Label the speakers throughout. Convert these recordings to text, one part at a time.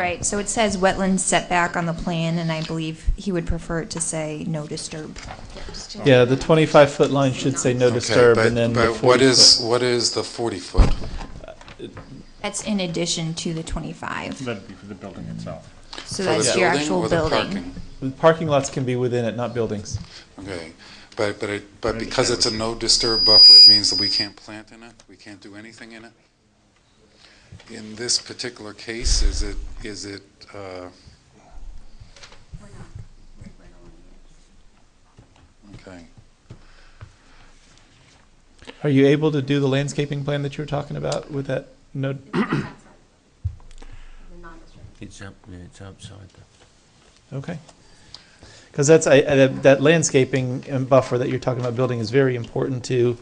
Speaker 1: Right, so it says wetland setback on the plan, and I believe he would prefer it to say no disturb.
Speaker 2: Yeah, the 25-foot line should say no
Speaker 3: Okay,
Speaker 2: disturb,
Speaker 3: but-
Speaker 2: and then the
Speaker 3: But what is,
Speaker 2: 40-foot.
Speaker 3: what is the 40-foot?
Speaker 1: That's in addition to the 25.
Speaker 4: That'd be for the building itself.
Speaker 1: So that's your actual building.
Speaker 2: Parking lots can be within it, not buildings.
Speaker 3: Okay, but, but, it- but because it's a no disturb buffer, it means that we can't plant in it? We can't do anything in it? In this particular case, is it, is it, uh, okay,
Speaker 2: Are you able to do the landscaping plan that you were talking about with that no,
Speaker 5: It's up, it's outside the.
Speaker 2: okay? Because that's, I- I- that that landscaping and buffer that you're talking about building is very important to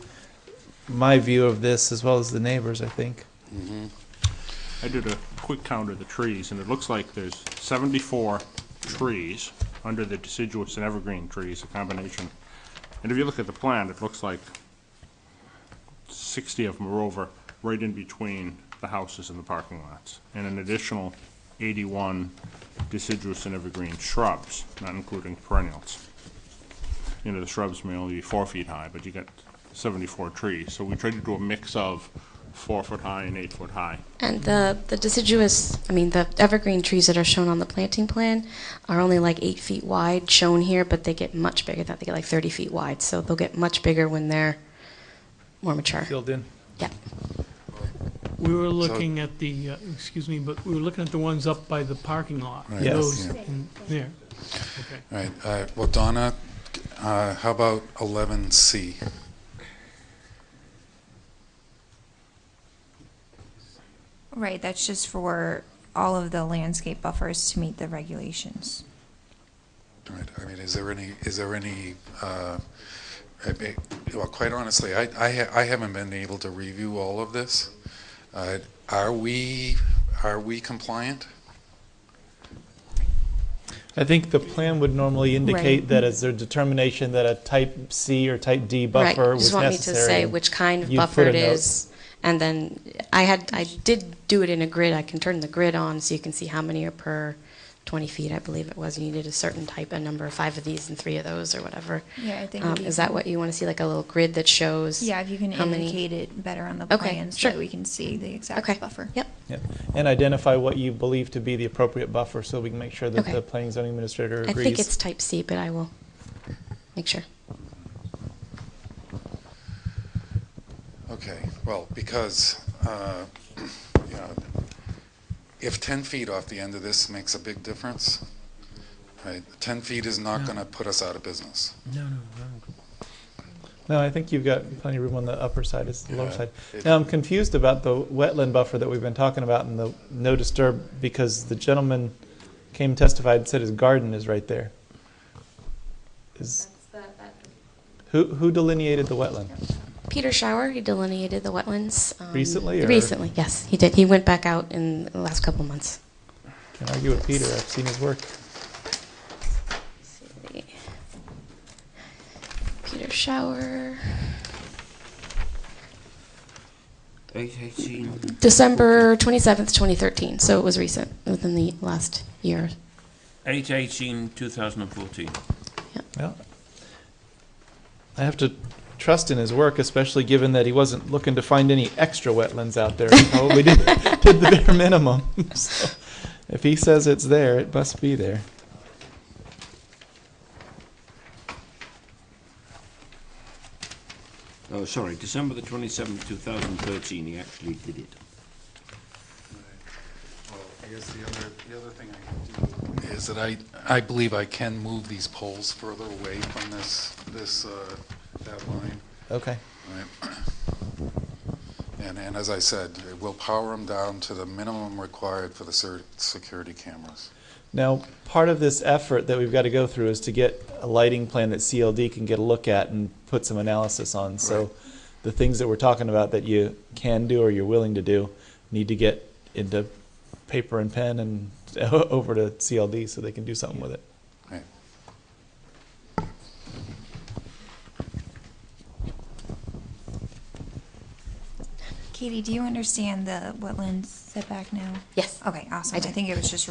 Speaker 2: my view of this, as well as the neighbors, I think.
Speaker 4: I did a quick count of the trees, and it looks like there's seventy-four trees under the deciduous and evergreen trees, a combination. And if you look at the plan, it looks like sixty of them are over, right in between the houses and the parking lots. And an additional eighty-one deciduous and evergreen shrubs, not including perennials. You know, the shrubs may only be four feet high, but you got seventy-four trees. So we tried to do a mix of four-foot high and eight-foot high.
Speaker 6: And the, the deciduous, I mean, the evergreen trees that are shown on the planting plan are only like eight feet wide shown here, but they get much bigger than that. They get like 30 feet wide, so they'll get much bigger when they're more mature.
Speaker 2: Filled in.
Speaker 6: Yep.
Speaker 7: We were looking at the, uh, excuse me, but we were looking at the ones up by the parking lot.
Speaker 3: Right,
Speaker 2: Yes.
Speaker 7: Those
Speaker 3: yeah.
Speaker 7: in there. Okay.
Speaker 3: all right, uh, well, Donna, uh, how about 11C?
Speaker 1: Right, that's just for all of the landscape buffers to meet the regulations.
Speaker 3: All right, I mean, is there any, is there any, uh, I mean, well, quite honestly, I, I ha- I haven't been able to review all of this. Uh, Are we, are we compliant?
Speaker 2: I think the plan would normally indicate that as their determination that a type C or type D
Speaker 6: Right.
Speaker 2: buffer
Speaker 6: You
Speaker 2: was
Speaker 6: just
Speaker 2: necessary.
Speaker 6: want me to say which kind of
Speaker 2: you
Speaker 6: buffer
Speaker 2: put
Speaker 6: it
Speaker 2: a note.
Speaker 6: is. And then I had, I did do it in a grid. I can turn the grid on so you can see how many are per 20 feet, I believe it was. You needed a certain type, a number of five of these and three of those or whatever.
Speaker 1: Yeah, I think
Speaker 6: Um,
Speaker 1: if you
Speaker 6: Is that
Speaker 1: can-
Speaker 6: what you want to see, like a little grid that shows?
Speaker 1: Yeah, if you can
Speaker 6: how many-
Speaker 1: indicate it better on the
Speaker 6: Okay,
Speaker 1: plan so that
Speaker 6: sure.
Speaker 1: we can see the
Speaker 6: Okay.
Speaker 1: exact buffer.
Speaker 6: Yep.
Speaker 2: Yeah, And identify what you believe to be the appropriate buffer so we can make sure that
Speaker 6: Okay.
Speaker 2: the planning zoning administrator
Speaker 6: I
Speaker 2: agrees.
Speaker 6: think it's type C, but I will make sure.
Speaker 3: Okay, well, because, uh, you know, if 10 feet off the end of this makes a big difference, right, 10 feet is not going to put us out of business.
Speaker 5: No, no,
Speaker 2: No, I think you've got plenty of room on the upper side, it's the lower
Speaker 3: Yeah,
Speaker 2: side.
Speaker 3: it-
Speaker 2: Now, I'm confused about the wetland buffer that we've been talking about and the no disturb, because the gentleman came testified and said his garden is right there. Is, who, who delineated the wetland?
Speaker 6: Peter Shower, he delineated the wetlands. um,
Speaker 2: Recently, or-
Speaker 6: Recently, yes, he did. He went back out in the last couple of months.
Speaker 2: Can't argue with Peter, I've seen his work.
Speaker 6: Peter Shower,
Speaker 5: no.
Speaker 6: December 27th, 2013, so it was recent, within the last year.
Speaker 5: Eight eighteen, two thousand and fourteen.
Speaker 2: Yeah. I have to trust in his work, especially given that he wasn't looking to find any extra wetlands out there. He probably did, did the bare minimum. So if he says it's there, it must be there.
Speaker 5: Oh, sorry, December the twenty-seventh, two thousand and thirteen, he actually did it.
Speaker 3: Well, I guess the other, the other thing I can do is that I, I believe I can move these poles further away from this, this, uh, that line.
Speaker 2: Okay.
Speaker 3: Right. And, and as I said, we'll power them down to the minimum required for the cer- security cameras.
Speaker 2: Now, part of this effort that we've got to go through is to get a lighting plan that CLD can get a look at and put some analysis on. So the things that we're talking about that you can do or you're willing to do need to get into paper and pen and over to CLD so they can do something with it.
Speaker 3: Right.
Speaker 1: Katie, do you understand the wetland setback now?
Speaker 6: Yes.
Speaker 1: Okay, awesome.
Speaker 6: I
Speaker 1: I
Speaker 6: do.
Speaker 1: think it was just